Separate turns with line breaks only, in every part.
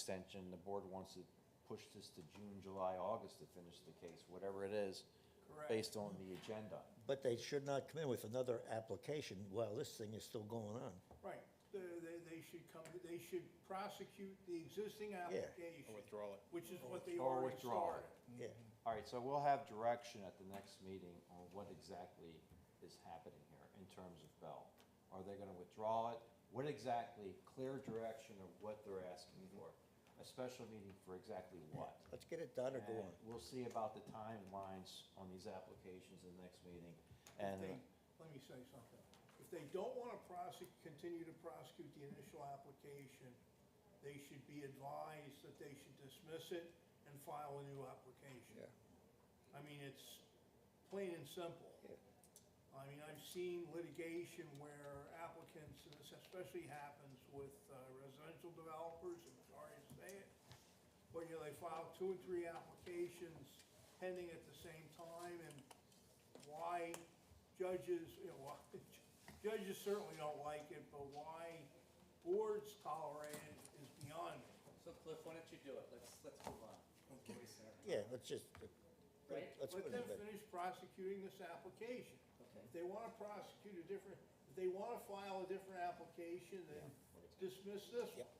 extension, the board wants to push this to June, July, August to finish the case, whatever it is, based on the agenda.
But they should not come in with another application while this thing is still going on.
Right, they, they, they should come, they should prosecute the existing application.
withdraw it.
Which is what they
Or
already
withdraw
started.
it.
Yeah,
All right, so we'll have direction at the next meeting on what exactly is happening here in terms of Bell. Are they gonna withdraw it? What exactly, clear direction of what they're asking for? A special meeting for exactly what?
let's get it done or go
And
on.
We'll see about the timelines on these applications in the next meeting.
If
And,
they, let me say something. If they don't wanna prosecute, continue to prosecute the initial application, they should be advised that they should dismiss it and file a new application. I mean, it's plain and simple. I mean, I've seen litigation where applicants, and this especially happens with uh, residential developers, I'm sorry to say it, where, you know, they file two or three applications pending at the same time, and why judges, you know, why, judges certainly don't like it, but why boards tolerate it is beyond me.
So Cliff, why don't you do it? Let's, let's move on. Before we start.
Yeah, let's just,
Right?
let's put
Let
it in.
them
bed.
finish prosecuting this application.
Okay.
If they wanna prosecute a different, if they wanna file a different application, then dismiss this
Yep.
one.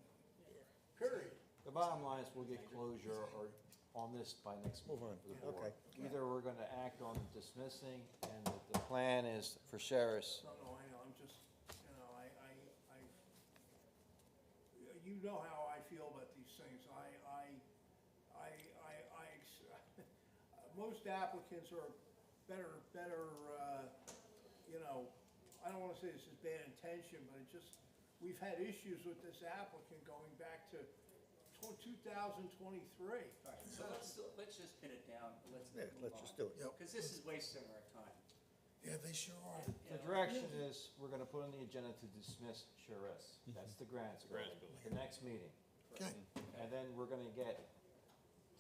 Period.
the bottom line is we'll get closure or on this by next
Move
meeting
on.
for the board.
Okay.
Either we're gonna act on dismissing and the- the plan is for Sheriff's,
No, no, I know, I'm just, you know, I, I, I, you know how I feel about these things. I, I, I, I, I, ex- most applicants are better, better, uh, you know, I don't wanna say this is bad intention, but it just, we've had issues with this applicant going back to two thousand twenty-three.
Alright, so let's, let's just pin it down. Let's
Yeah,
move on.
let's just do it.
Because this is wasting our time.
Yeah, they sure are.
the direction is, we're gonna put on the agenda to dismiss Sheriff's.
Mm-hmm.
That's the grants building, the next meeting.
Okay,
And then we're gonna get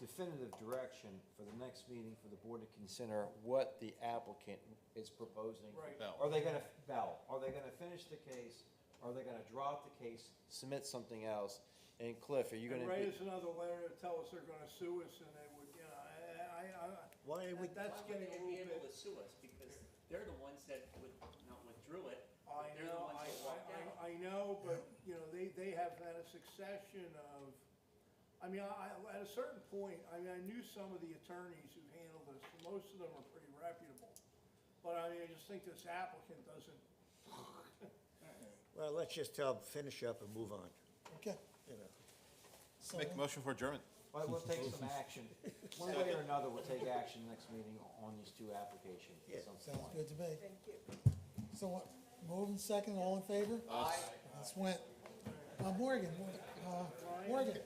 definitive direction for the next meeting for the board to consider what the applicant is proposing.
Right.
Bell.
Are they gonna, Bell, are they gonna finish the case? Are they gonna drop the case, submit something else? And Cliff, are you gonna
And
be?
raise another letter to tell us they're gonna sue us and they would, you know, I, I, I,
Why would,
That- That's
Why would
getting
they
a
be
little
able
bit.
to sue us? Because they're the ones that would, not withdrew it. but
I
They're the
know,
ones
I,
that walked out.
I, I know, but, you know, they, they have had a succession of, I mean, I, I- at a certain point, I mean, I knew some of the attorneys who handled this, and most of them are pretty reputable. But I mean, I just think this applicant doesn't,
well, let's just tell, 'em, finish up and move on,
okay.
you know.
Make a motion for adjournment.
But we'll take some action. One way or another, we'll take action next meeting on these two applications. at
Yeah,
some
Sounds
point.
good to me. Thank you. So what, moving second, all in favor? Aye. That's went. Uh, Morgan, uh, Morgan,